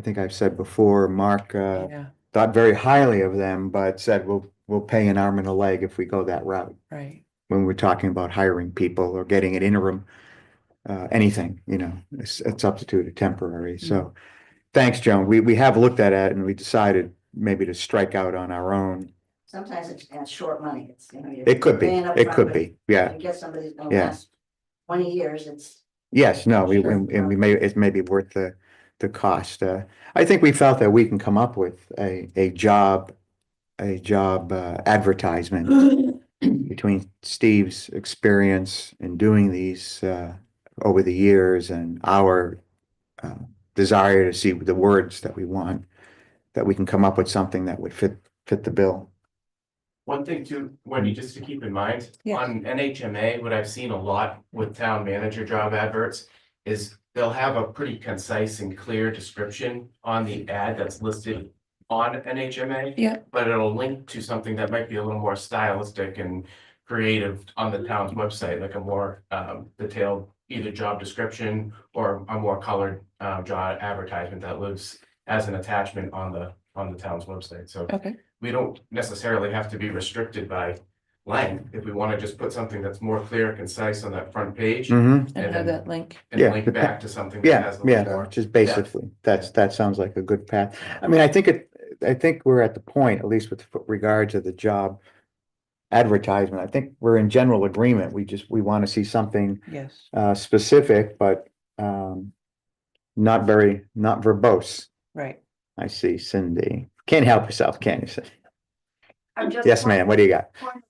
think I've said before, Mark, uh, Yeah, thought very highly of them, but said, we'll, we'll pay an arm and a leg if we go that route. right. When we're talking about hiring people or getting an interim, uh, anything, you know, a s- a substitute, a temporary, so. Thanks, Joan. We, we have looked at it and we decided maybe to strike out on our own. Sometimes it's, it's short money, it's, you know. you're It could be, paying up it could front, be, but yeah. You get somebody who's gonna Yeah. last twenty years, it's, Yes, no, we, Sure. and and we may, it may be worth the, the cost. Uh, I think we felt that we can come up with a, a job, a job uh, advertisement between Steve's experience in doing these, uh, over the years and our, uh, desire to see the words that we want, that we can come up with something that would fit, fit the bill. One thing too, Wendy, just to keep in mind, Yes. on NHMA, what I've seen a lot with town manager job adverts is they'll have a pretty concise and clear description on the ad that's listed on NHMA. Yeah. But it'll link to something that might be a little more stylistic and creative on the town's website, like a more um detailed either job description or a more colored uh job advertisement that lives as an attachment on the on the town's website. So Okay, we don't necessarily have to be restricted by length. If we want to just put something that's more clear, concise on that front page and Mm-hmm. and have then- that link. yeah. link back to something. that Yeah, has a little yeah, more- just basically, that's, that sounds like a good path. I mean, I think it, I think we're at the point, at least with regard to the job advertisement, I think we're in general agreement. We just, we want to see something Yes. uh specific, but um not very, not verbose. Right. I see Cindy. Can't help yourself, can you? Cindy? I'm just. Yes, ma'am, what do you got? wondering,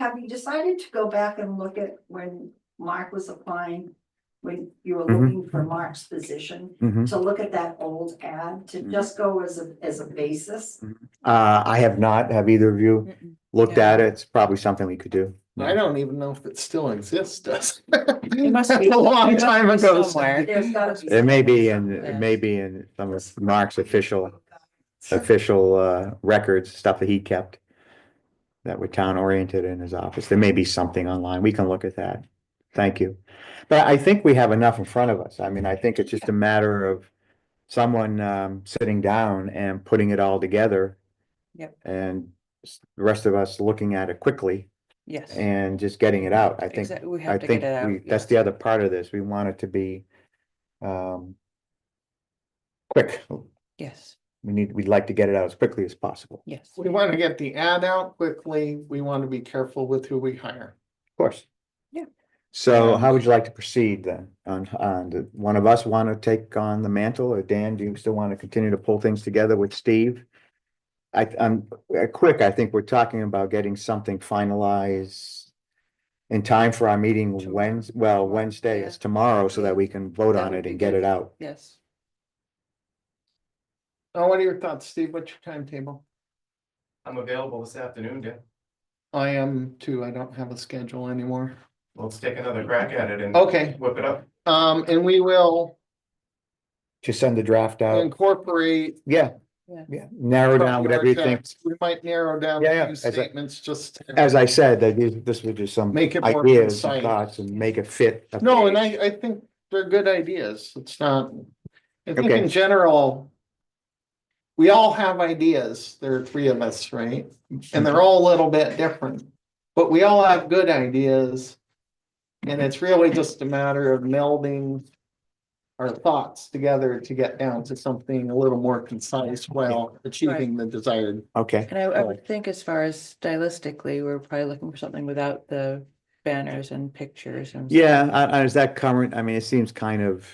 Have you decided to go back and look at when Mark was applying? When you were Mhm. looking for Mark's position, Mhm. to look at that old ad, to Mhm. just go as a, as a basis? Uh, I have not, have either of you Mm-mm. looked Yeah. at it? It's probably something we could do. I don't even know if it still exists, does. It must That's be- A long it must time be ago. somewhere. There's gotta be. It may be in, something. it may be in some of Mark's official official uh records, stuff that he kept. That were town oriented in his office. There may be something online. We can look at that. Thank you. But I think we have enough in front of us. I mean, I think it's just a matter of. Someone um sitting down and putting it all together. Yep. And s- the rest of us looking at it quickly Yes. and just getting it out. I think Exact- We I have to think get it out. we, that's the other part of this. We want it to be. Um. Quick. Yes, We need, we'd like to get it out as quickly as possible. yes. We want to get the ad out quickly. We want to be careful with who we hire. Of course. Yeah. Um, So Yeah. how would you like to proceed then? On, on, do one of us want to take on the mantle or Dan, do you still want to continue to pull things together with Steve? I, I'm, uh, quick, I think we're talking about getting something finalized in time for our meeting Tomorrow. Wednes, well, Wednesday Yeah. is tomorrow so that we can vote That on would it be and get good. it out. Yes. Now, Oh, what are your thoughts, Steve? What's your timetable? I'm available this afternoon, Dan. I am too. I don't have a schedule anymore. Let's take another crack at it Oh. and Okay, whip it up. um, and we will Just send the draft out. incorporate. Yeah. Yeah. Yeah, narrow Uh, down whatever you think. We might narrow down Yeah, yeah, a few as I- statements just. to- As I said, that is, this was just some Make it more ideas and concise. thoughts and make it fit. a No, and page. I, I think they're good ideas. It's not, I think Okay. in general. We all have ideas. There are three of us, right? And they're all a little bit different, but we all have good ideas. And it's really just a matter of melding. Our thoughts together to get down to something a little more concise while achieving the desired. Okay, And I, I Oh. would think as far as stylistically, we're probably looking for something without the banners and pictures and. yeah, I, I, is that current, I mean, it seems kind of,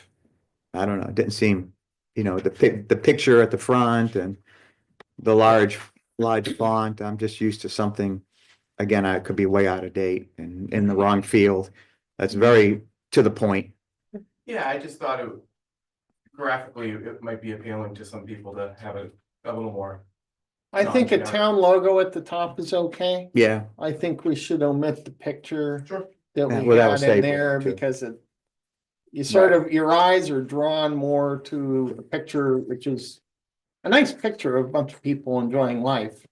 I don't know, it didn't seem, you know, the pic, the picture at the front and the large, large font, I'm just used to something, again, I could be way out of date and in the wrong field. That's very to the point. Yeah, I just thought it graphically, it might be appealing to some people to have it a little more. I think a Non-generic. town logo at the top is okay. Yeah, I think we should omit the picture. Sure. That Yeah, we well, that was had in stapled, there too. because it. You sort of, your eyes are drawn more to a picture, which is. A nice picture of a bunch of people enjoying life.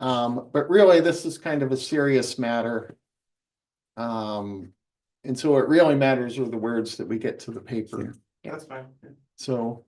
Um, but really, this is kind of a serious matter. Um, and so it really matters are the words that we get to the paper, That's fine. so.